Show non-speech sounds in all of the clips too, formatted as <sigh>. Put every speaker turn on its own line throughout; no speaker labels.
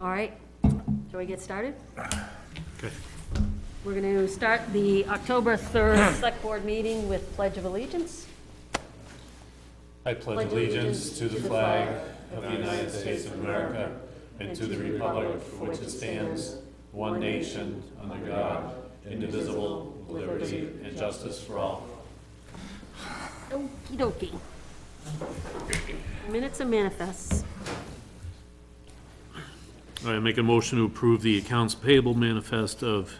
All right, shall we get started?
Okay.
We're going to start the October 3rd <coughs> Select Board meeting with Pledge of Allegiance.
I pledge allegiance to the flag of the United States of America and to the republic for which it stands, one nation, under God, indivisible, with liberty and justice for all.
Okey dokey. Minutes and manifests.
All right, make a motion to approve the accounts payable manifest of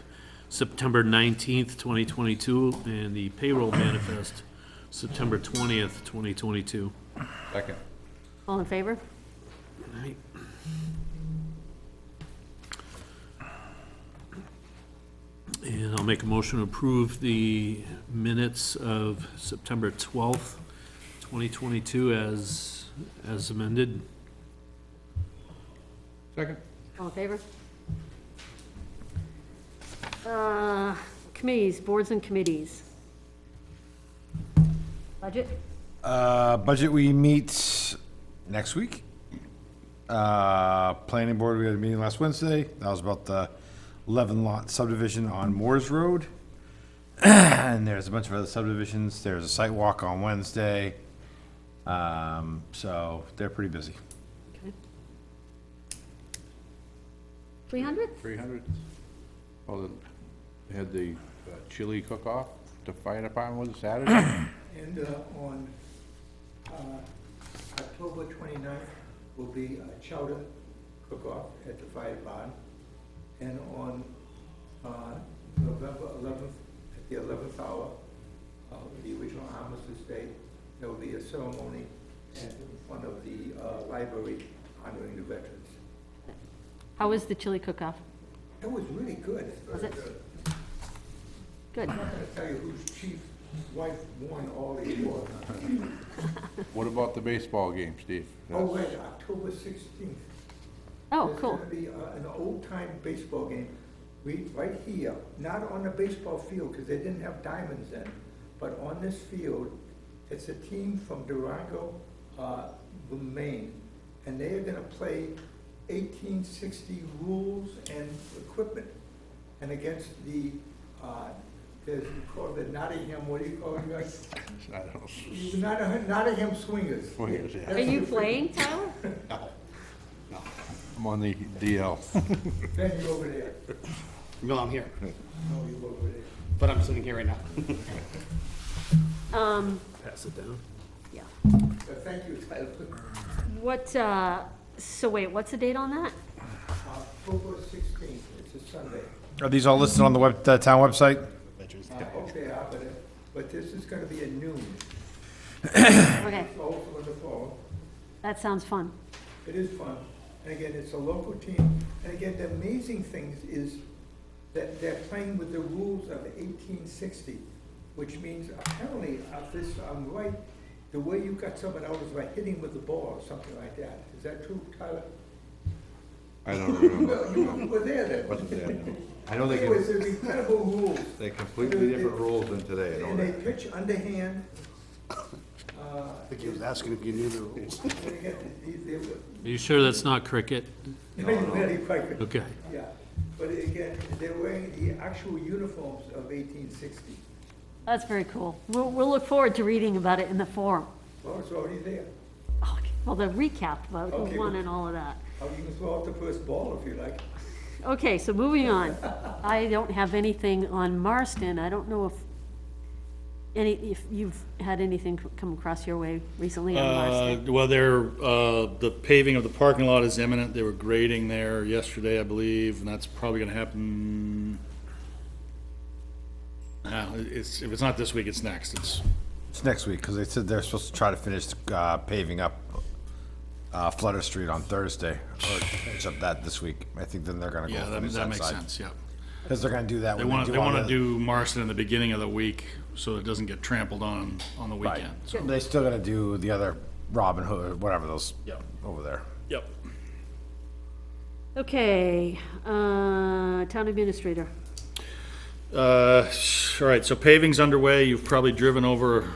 September nineteenth, twenty twenty-two, and the payroll manifest September twentieth, twenty twenty-two.
Second.
All in favor?
And I'll make a motion to approve the minutes of September 12th, 2022 as, as amended.
Second.
All in favor? Uh, Committees, boards and committees. Budget?
Uh, budget, we meet next week. Uh, planning board, we had a meeting last Wednesday. That was about the eleven lot subdivision on Moores Road. <clears throat> And there's a bunch of other subdivisions. There's a site walk on Wednesday. Um, so they're pretty busy.
300?
Three hundred. Well, the- they had the uh, chili cook-off, the fire department was Saturday.
And uh, on uh, October 29th will be a chowder cook-off at the fire barn. And on uh, November 11th, at the 11th hour, uh, the original Armistice Day, there will be a ceremony at one of the uh, library honoring the veterans.
How was the chili cook-off?
It was really good.
Was it?
Very good.
Good.
I'm not going to tell you whose chief wife won all the awards.
What about the baseball game, Steve?
Oh, wait, October 16th.
Oh, cool.
There's gonna be uh, an old-time baseball game, we, right here, not on the baseball field, because they didn't have diamonds then, but on this field, it's a team from Durango, uh, Maine, and they are gonna play eighteen sixty rules and equipment, and against the, uh, there's, you call it the Nottingham, what do you call it,
<laughs>
guys?
That's- I don't know.
Nottingham, Nottingham Swingers.
Swingers, yeah.
Are you playing, Tyler?
I'm on the DL.
Ben, you over there,
No, I'm here,
no, you over there.
but I'm sitting here right now.
Um,
Pass it down.
yeah.
But thank you, Tyler.
What, uh, so wait, what's the date on that?
Uh, October sixteenth, it's a Sunday.
Are these all listed on the web, the town website?
Uh, Okay, I but, but this is gonna be at noon,
Okay,
also in the fall.
that sounds fun.
It is fun. And again, it's a local team. And again, the amazing thing is that they're playing with the rules of eighteen sixty, which means apparently, if this, I'm right, the way you got someone out is by hitting with the ball or something like that. Is that true, Tyler?
I don't
You
remember.
were- You were there then.
Wasn't there, no.
I know they
It was
can,
incredible rules.
they completely different rules than today, don't
And they
they?
pitch <coughs> underhand. uh,
I think he was asking if you knew the
<laughs>
rules.
They get- they- they were-
Are you sure that's not cricket?
Very quite good,
Okay.
yeah. But again, they're wearing the actual uniforms of eighteen sixty.
That's very cool. We'll, we'll look forward to reading about it in the forum.
Well, it's already there.
Oh, Well, the recap about
Okay.
who won and all of that.
Oh, you can throw out the first ball if you like.
Okay, so moving on. I don't have anything on Marston. I don't know if any, if you've had anything c- come across your way recently on
Uh,
Marston.
Well, they're, uh, the paving of the parking lot is imminent. They were grading there yesterday, I believe, and that's probably gonna happen. Uh, it's, if it's not this week, it's next. It's,
It's next week, because they said they're supposed to try to finish uh, paving up uh, Flutter Street on Thursday, or finish up that this week. I think then they're gonna go
yeah, that,
finish
that
that
makes
side.
sense, yeah.
Because they're gonna do that
They
when
wanna,
do
they
all
wanna
the-
do Marston in the beginning of the week, so it doesn't get trampled on, on the
Right.
weekend. so-
They still gotta do the other Robin Hood, whatever those, over there.
Yep.
Okay, uh, town administrator.
Uh, all right, so paving's underway. You've probably driven over